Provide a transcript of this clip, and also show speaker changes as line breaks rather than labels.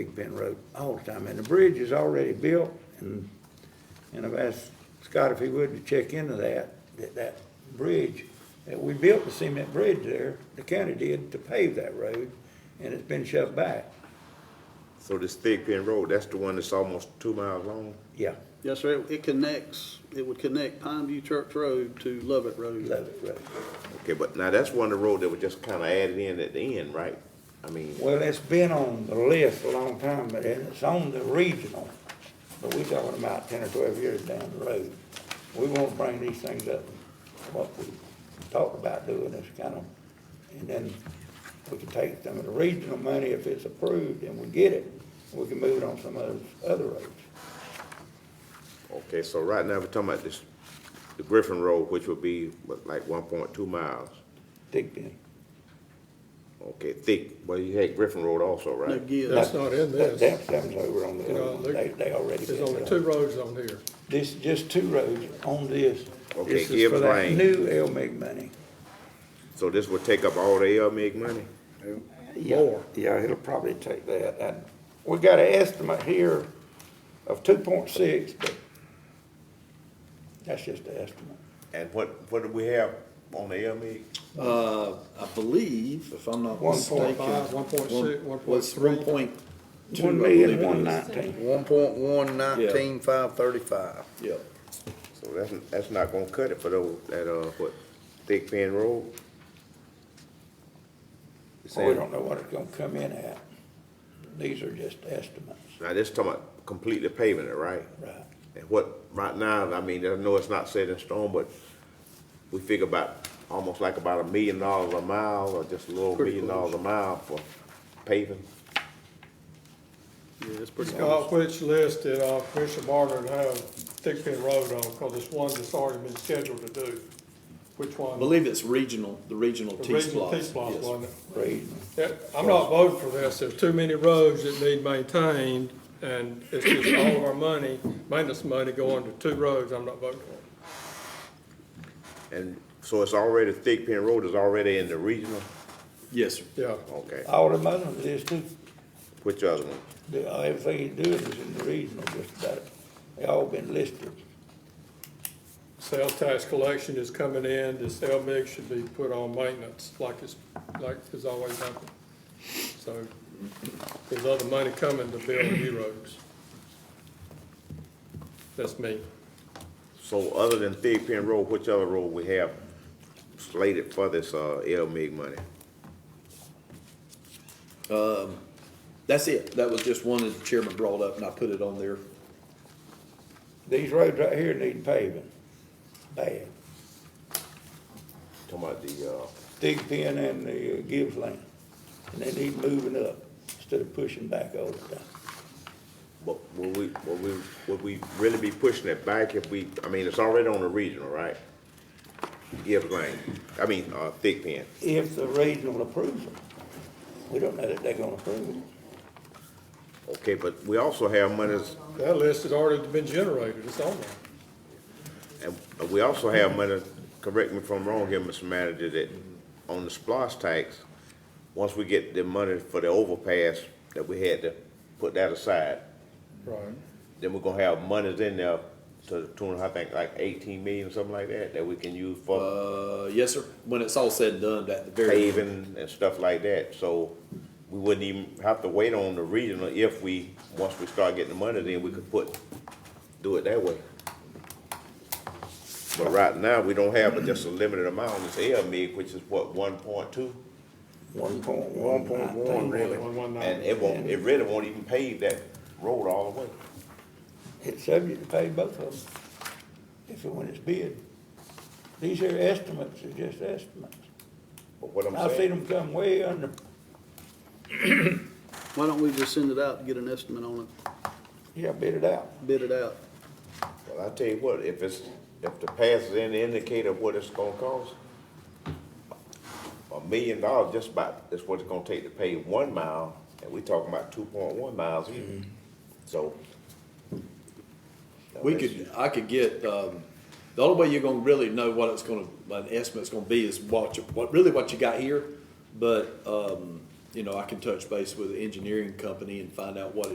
Big Bend Road all the time, and the bridge is already built, and, and I've asked Scott if he would to check into that, that, that bridge, that we built the cement bridge there, the county did, to pave that road, and it's been shoved back,
So this Thick Pin Road, that's the one that's almost two miles long?
yeah,
Yes, sir, It- it connects, it would connect Pine View Church Road to Lovett Road.
love it, road.
Okay, but now that's one of the road that was just kinda added in at the end, right? I mean,
Well, it's been on the list a long time, but and it's on the regional, but we talking about ten or twelve years down the road. We wanna bring these things up, what we talked about doing, this kind of, and then we can take some of the regional money if it's approved and we get it, we can move it on some of those other roads.
okay, so right now we're talking about this, the Griffin Road, which would be what, like one point two miles.
Digby,
Okay, Thick, well, you had Griffin Road also,
No
right?
gives.
That's not in
that,
this.
that, that was over on the,
You know, there-
they, they already.
There's
built
only
it
two
up.
roads on here.
This, just two roads on this.
Okay,
This is
Gibbs
for that
Lane.
New LMIG money.
So this would take up all the LMIG money?
Yeah,
More.
Yeah, it'll probably take that. And we got an estimate here of two point six, but that's just an estimate.
And what, what do we have on the LMIG?
Uh, I believe, if I'm not
One point
mistaken.
five, one point
one-
six, one point
was
three.
One point two, I
One
believe
million,
it
one
is.
nineteen.
One point one nineteen five thirty-five.
Yep.
So that's, that's not gonna cut it for those, that, uh, what, Thick Pin Road?
So we don't know what it's gonna come in at. These are just estimates,
Now, this talking about completely paving it, right?
right?
And what, right now, I mean, I know it's not set in stone, but we figure about, almost like about a million dollars a mile, or just a little
Pretty
million
close.
dollars a mile for paving.
Yeah, it's pretty
Uh,
close.
which list did, uh, Commissioner Barnard have Thigpen Road on, cause it's one that's already been scheduled to do. Which
I
one?
believe it's regional, the regional
The
T
regional T
splosh.
splosh,
Yes.
wasn't it?
Reading.
Yeah, I'm not voting for this, there's too many roads that need maintained, and it's just all of our money, maintenance money going to two roads, I'm not voting for. it.
And so it's already, Thick Pin Road is already in the regional,
Yes, sir.
Yeah,
okay.
All the money for this too,
Which other one?
the, everything you do is in the regional, just about, it. they all been listed.
sales tax collection is coming in, this LMIG should be put on maintenance, like it's, like it's always happened. So, there's other money coming to build new roads. That's me.
So other than Thick Pin Road, which other road we have slated for this, uh, LMIG money?
That's it. That was just one that the chairman brought up and I put it on there.
These roads right here need paving, bad.
Talking about the, uh,
dig pin and the uh, Gibbs lane. And they need moving up instead of pushing back all the time.
But would we, would we, would we really be pushing it back if we, I mean, it's already on the regional, right? Gibbs Lane, I mean, uh, Thick Pen.
If the regional approves them, we don't know that they're gonna approve them.
Okay, but we also have monies,
That list has already been generated, it's on there.
and we also have money, correct me if I'm wrong here, Mr. Manager, that on the splosh tax, once we get the money for the overpass, that we had to put that aside,
Right.
then we're gonna have monies in there to the tune of, I think, like eighteen million, something like that, that we can use for
Uh, yes, sir. When it's all said and done, that the very.
paving and stuff like that, so we wouldn't even have to wait on the regional if we, once we start getting the money, then we could put, do it that way. But right now, we don't have but just a limited amount, it's LMIG, which is what, one point two?
One point one, I think.
One, one, nine.
And it won't, it really won't even pave that road all the way.
It's subject to pay both of them if and when it's bid. These here estimates are just estimates.
But what I'm
I've seen
saying,
them come way under,
Why don't we just send it out, and get an estimate on it,
yeah, bid it out.
bid it out?
well, I tell you what, if it's, if the pass is any indicator of what it's gonna cost, a million dollars just about is what it's gonna take to pave one mile, and we talking about two point one miles here. So.
We could, I could get, um, the only way you're gonna really know what it's gonna, what an estimate's gonna be is what you, what, really what you got here. But, um, you know, I can touch base with the engineering company and find out what